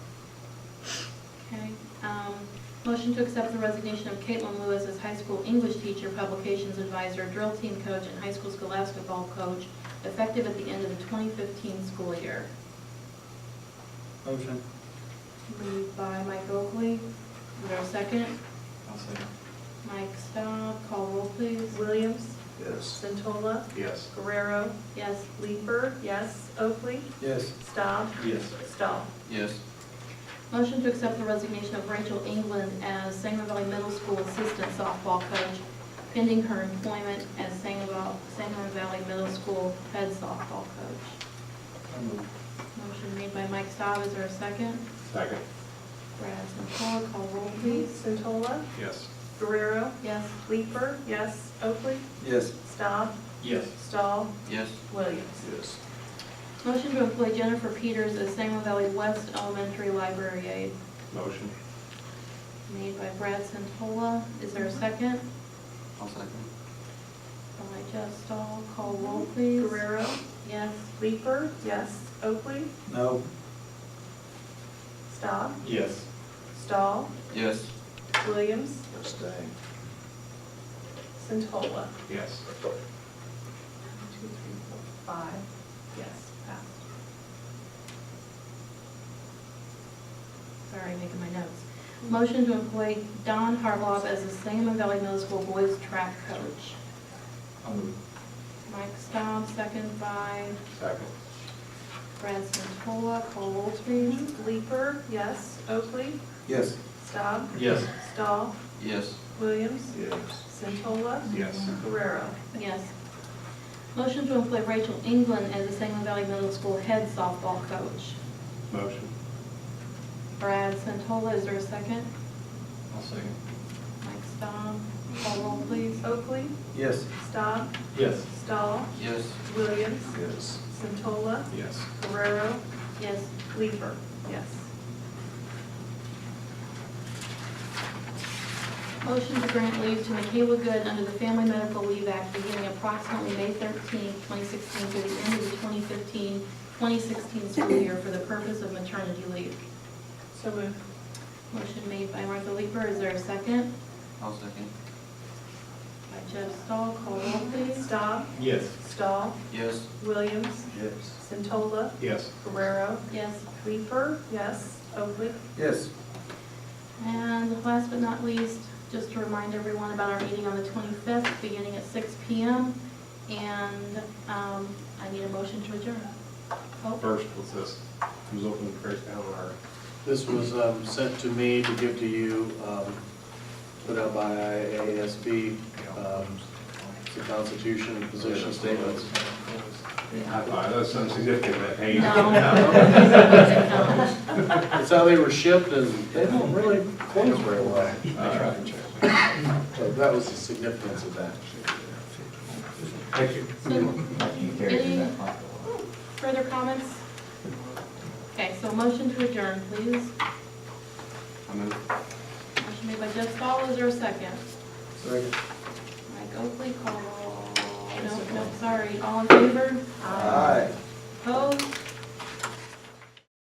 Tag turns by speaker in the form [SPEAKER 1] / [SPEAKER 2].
[SPEAKER 1] um, Motion to accept the resignation of Caitlin Lewis as high school English teacher, publications advisor, drill team coach, and high school scholastic ball coach, effective at the end of the 2015 school year.
[SPEAKER 2] Motion.
[SPEAKER 1] Moved by Mike Oakley. Is there a second?
[SPEAKER 2] I'll second.
[SPEAKER 1] Mike Stone, call roll please.
[SPEAKER 3] Williams,
[SPEAKER 4] Yes.
[SPEAKER 3] Centola,
[SPEAKER 4] Yes.
[SPEAKER 3] Guerrero,
[SPEAKER 1] Yes.
[SPEAKER 3] Leeper, yes, Oakley,
[SPEAKER 2] Yes.
[SPEAKER 3] Staub,
[SPEAKER 2] Yes.
[SPEAKER 3] Stahl.
[SPEAKER 4] Yes.
[SPEAKER 1] Motion to accept the resignation of Rachel England as Sangerville Valley Middle School Assistant Softball Coach pending her employment as Sangerville Sangerville Valley Middle School Head Softball Coach.
[SPEAKER 2] I'll move.
[SPEAKER 1] Motion made by Mike Staub, is there a second?
[SPEAKER 4] Second.
[SPEAKER 1] Brad Santola, call roll please.
[SPEAKER 3] Centola,
[SPEAKER 4] Yes.
[SPEAKER 3] Guerrero,
[SPEAKER 1] Yes.
[SPEAKER 3] Leeper, yes, Oakley,
[SPEAKER 2] Yes.
[SPEAKER 3] Staub,
[SPEAKER 2] Yes.
[SPEAKER 3] Stahl,
[SPEAKER 4] Yes.
[SPEAKER 3] Williams.
[SPEAKER 4] Yes.
[SPEAKER 1] Motion to employ Jennifer Peters as Sangerville Valley West Elementary Library Aide,
[SPEAKER 4] Motion.
[SPEAKER 1] made by Brad Santola, is there a second?
[SPEAKER 4] I'll second.
[SPEAKER 1] By Jeff Stahl, call roll please.
[SPEAKER 3] Guerrero,
[SPEAKER 1] Yes.
[SPEAKER 3] Leeper, yes, Oakley,
[SPEAKER 2] No.
[SPEAKER 3] Staub,
[SPEAKER 2] Yes.
[SPEAKER 3] Stahl,
[SPEAKER 4] Yes.
[SPEAKER 3] Williams,
[SPEAKER 4] Abstain.
[SPEAKER 3] Centola.
[SPEAKER 4] Yes.
[SPEAKER 3] One, two, three, four, five, yes, passed.
[SPEAKER 1] Sorry, making my notes. Motion to employ Don Harloff as the Sangamon Valley Middle School Boys Track Coach.
[SPEAKER 2] I'll move.
[SPEAKER 1] Mike Staub, second by
[SPEAKER 4] Second.
[SPEAKER 1] Brad Santola, call roll please.
[SPEAKER 3] Leeper, yes, Oakley,
[SPEAKER 2] Yes.
[SPEAKER 3] Staub,
[SPEAKER 2] Yes.
[SPEAKER 3] Stahl,
[SPEAKER 4] Yes.
[SPEAKER 3] Williams,
[SPEAKER 4] Yes.
[SPEAKER 3] Centola,
[SPEAKER 4] Yes.
[SPEAKER 3] Guerrero.
[SPEAKER 1] Yes. Motion to employ Rachel England as the Sangamon Valley Middle School Head Softball Coach.
[SPEAKER 4] Motion.
[SPEAKER 1] Brad Santola, is there a second?
[SPEAKER 2] I'll second.
[SPEAKER 1] Mike Staub, call roll please.
[SPEAKER 3] Oakley,
[SPEAKER 2] Yes.
[SPEAKER 3] Staub,
[SPEAKER 2] Yes.
[SPEAKER 3] Stahl,
[SPEAKER 4] Yes.
[SPEAKER 3] Williams,
[SPEAKER 4] Yes.
[SPEAKER 3] Centola,
[SPEAKER 4] Yes.
[SPEAKER 3] Guerrero,
[SPEAKER 1] Yes.
[SPEAKER 3] Leeper, yes.
[SPEAKER 1] Motion to grant leave to Michaela Good under the Family Medical Leave Act beginning approximately May 13, 2016 through the end of the 2015-2016 school year for the purpose of maternity leave.
[SPEAKER 3] So moved.
[SPEAKER 1] Motion made by Martha Leeper, is there a second?
[SPEAKER 4] I'll second.
[SPEAKER 1] By Jeff Stahl, call roll please.
[SPEAKER 3] Staub,
[SPEAKER 2] Yes.
[SPEAKER 3] Stahl,
[SPEAKER 4] Yes.
[SPEAKER 3] Williams,
[SPEAKER 2] Yes.
[SPEAKER 3] Centola,
[SPEAKER 2] Yes.
[SPEAKER 3] Guerrero,
[SPEAKER 1] Yes.
[SPEAKER 3] Leeper, yes, Oakley.
[SPEAKER 2] Yes.
[SPEAKER 1] And last but not least, just to remind everyone about our meeting on the 25th, beginning at 6 PM. And um, I need a motion to adjourn. Oh,
[SPEAKER 5] First, what's this? Who's opening first down or?
[SPEAKER 6] This was um, sent to me to give to you, um, put out by IASB, um, the Constitution, position statements.
[SPEAKER 5] High five,
[SPEAKER 2] "Oh,
[SPEAKER 5] that's some significant, but hey.
[SPEAKER 2] Uh,
[SPEAKER 1] No.
[SPEAKER 6] It's how they were shipped, and they don't really close very well. So that was the significance of that.
[SPEAKER 5] Thank you.
[SPEAKER 1] So, Any further comments? Okay, so motion to adjourn, please.
[SPEAKER 4] I move.
[SPEAKER 1] Motion made by Jeff Stahl, is there a second?
[SPEAKER 2] Second.
[SPEAKER 1] Mike Oakley, call, no, no, sorry, all in favor?
[SPEAKER 2] Aye.
[SPEAKER 1] Opposed?